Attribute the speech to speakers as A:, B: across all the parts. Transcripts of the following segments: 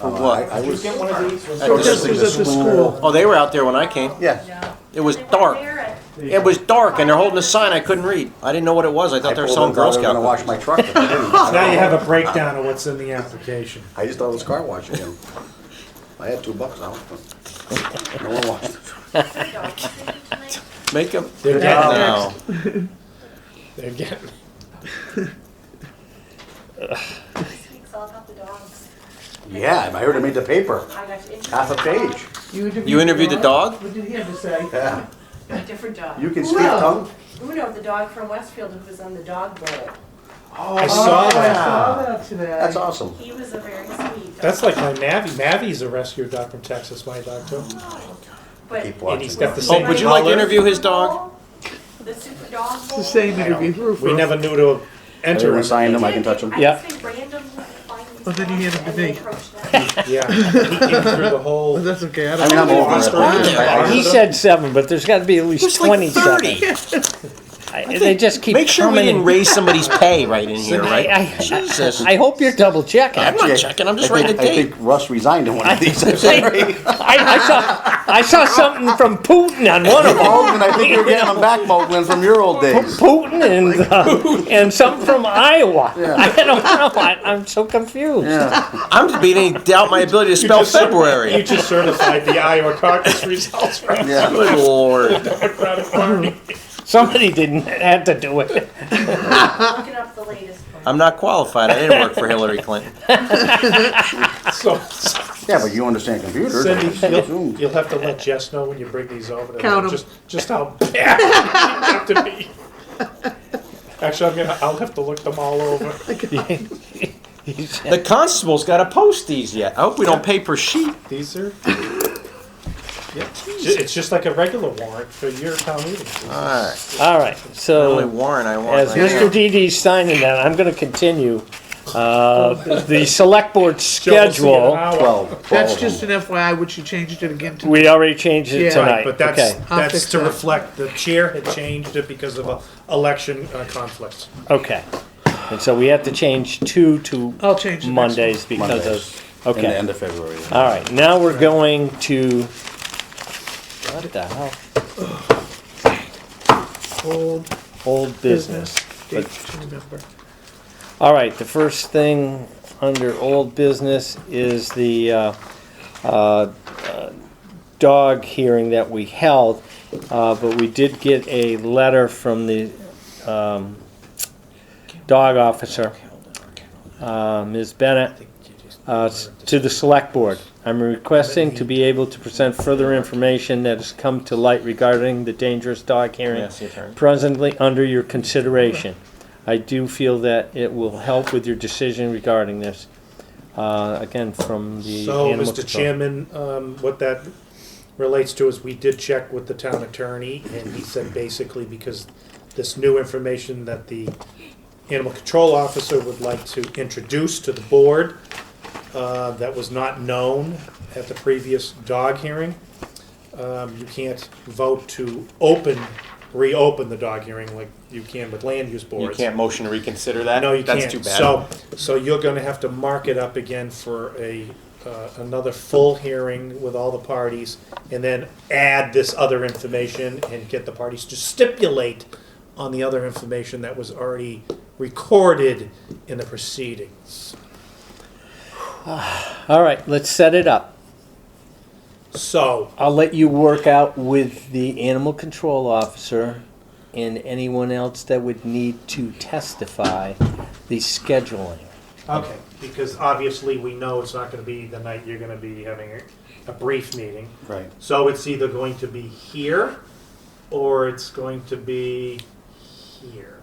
A: For
B: Uh,
A: what?
B: I- I
C: Did you
B: was,
C: get one of these?
B: I was
A: Just
B: at
D: was at the school.
A: Oh, they were out there when I came.
B: Yeah.
A: It was
E: They wanna
A: dark.
E: wear it.
A: It was dark, and they're holding a sign I couldn't read. I didn't know what it was. I thought they were
B: pulled
A: selling
B: up, thought
A: Girl
B: I was
A: Scout
B: gonna wash
A: cookies.
B: my truck, but I didn't.
D: Now you have a breakdown of what's in the application.
B: I just thought it was car wash again. I had two bucks out. No one washed.
E: It's dark. Tonight.
A: Make them.
D: They're getting
A: No.
D: They're getting.
E: This week's all about the dogs.
B: Yeah, I heard it made the paper,
E: I got to interview
B: half a
E: the dog.
B: page.
A: You interviewed the dog?
F: What did he have to say?
B: Yeah,
E: A different dog.
B: you can speak
F: Wow.
B: tongue?
E: Uno, the dog from Westfield who was on the dog bowl.
D: I saw
F: Oh, I
D: that.
F: saw that today.
B: That's awesome.
E: He was a very sweet dog.
D: That's like my Mavi. Mavi's a rescue dog from Texas, my dog too.
E: But
B: Keep
D: And he's
B: watching.
D: got the
A: Oh,
D: same.
A: would you like to
D: color.
A: interview his dog?
E: The super dog bowl.
F: It's the same interview. Roof,
D: We
F: roof.
D: never knew to enter
B: Everyone
D: him.
B: signed them, I can touch them.
E: I
D: Yeah.
E: just think randomly find these
F: Well, then he
E: dogs
F: had a
E: and they
F: big-
E: approach them.
D: Yeah, he came through the whole.
F: But that's okay. I
B: I
F: don't
B: mean, I'm over
A: He's
B: it.
A: on there.
B: I- I-
G: He said seven, but there's got to be at least
A: There's like
G: 27.
A: 30.
G: I- They just keep
A: Make sure we
G: coming
A: didn't
G: and-
A: raise somebody's pay right in here,
G: I- I-
A: right?
G: I-
A: Jesus.
G: I hope you're double checking.
A: I'm
G: I,
A: not checking. I'm just
B: I
A: writing a
B: think- I
A: date.
B: think Russ resigned in one of these. I'm sorry.
G: I saw, I saw something from Putin on one of them.
B: Moglen, I think you're getting them back, Moglen, from your old days.
G: Putin and uh, and something from Iowa. I don't know. I, I'm so confused.
A: I'm beginning to doubt my ability to
D: You
A: spell
D: just cer- You
A: February.
D: just certified the Iowa caucus results right
B: Yeah.
A: Good lord.
D: Democratic Party.
G: Somebody didn't have to do it.
E: Looking up the latest one.
A: I'm not qualified. I didn't work for Hillary Clinton.
D: So
B: Yeah, but you understand computers.
D: Cindy, you'll,
B: Zoom.
D: you'll have to let Jess know when you bring these over. to them,
F: Count 'em.
D: Just, just how bad you have to be. Actually, I'm gonna. I'll have to look them all over.
A: The constable's got to post these yet. I hope we don't pay per sheet.
D: These are. Yeah, ju- it's just like a regular warrant for your town meeting.
F: Uh,
A: All right.
G: All right.
A: Only
G: So
A: Warren I want.
G: as
A: right now.
G: Mr. Didi's signing that, I'm going to continue uh, the select
D: Joe, we'll
G: board
D: see you in an
G: schedule.
D: hour.
B: Twelve.
F: That's just an FYI, which you changed it again to.
G: We already changed it
F: Yeah.
G: tonight.
F: Right,
D: But that's
G: okay.
F: I'll
D: that's
F: fix
D: to
F: that.
D: reflect the chair had changed it because of a election uh, conflicts.
G: Okay. And so we have to change two to
F: I'll change the next
G: Mondays because
B: Mondays.
G: of,
B: In the
G: okay. Uh,
B: end of February.
G: All right, now we're going to, what the hell?
F: Old
G: Old business.
F: business. Date to remember.
G: All right, the first thing under old business is the uh, uh, uh, dog hearing that we held. uh, But we did get a letter from the um, dog officer, uh, Ms. Bennett, uh, s- to the select board. I'm requesting to be able to present further information that has come to light regarding the dangerous dog hearing
A: Yes, the attorney.
G: presently under your consideration. I do feel that it will help with your decision regarding this. Uh, Again, from the
D: So,
G: animal
D: Mr.
G: control.
D: Chairman, um, what that relates to is we did check with the town attorney, and he said basically because this new information that the animal control officer would like to introduce to the board uh, that was not known at the previous dog hearing. Um, You can't vote to open, reopen the dog hearing like you can with land use
A: You
D: boards.
A: can't motion to reconsider that?
D: No, you
A: That's
D: can't.
A: too bad.
D: So, so you're gonna have to mark it up again for a, uh, another full hearing with all the parties, and then add this other information and get the parties to stipulate on the other information that was already recorded in the proceedings.
G: All right, let's set it up.
D: So,
G: I'll let you work out with the animal control officer and anyone else that would need to testify the scheduling.
D: okay, because obviously we know it's not gonna be the night you're gonna be having a, a brief meeting.
B: Right.
D: So it's either going to be here, or it's going to be here,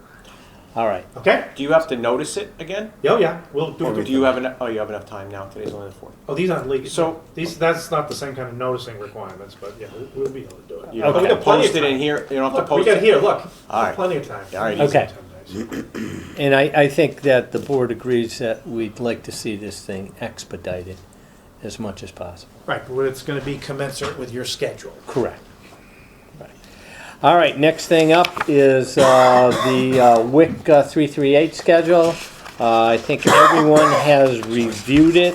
G: All right,
D: okay?
A: Do you have to notice it again?
D: Yeah, yeah, we'll do
A: Or
D: it.
A: do you have enough, oh, you have enough time now. Today's only the fourth.
D: Oh, these aren't legal.
A: So-
D: So these, that's not the same kind of noticing requirements, but yeah, we'll- we'll be able to do it.
A: You
D: But
A: don't
D: we
A: have to
D: got plenty of
A: post it in
D: time.
A: here. You don't have to
D: Look, we
A: post
D: got
A: it.
D: here, look,
A: All right.
D: plenty of time.
A: All right.
D: Easy
G: Okay.
D: 10 days.
G: and I, I think that the board agrees that we'd like to see this thing expedited as much as possible.
D: Right, but it's gonna be commensurate with your schedule.
G: Correct. Right. All right, next thing up is uh, the uh, WIC uh, 338 schedule. Uh, I think everyone has reviewed it.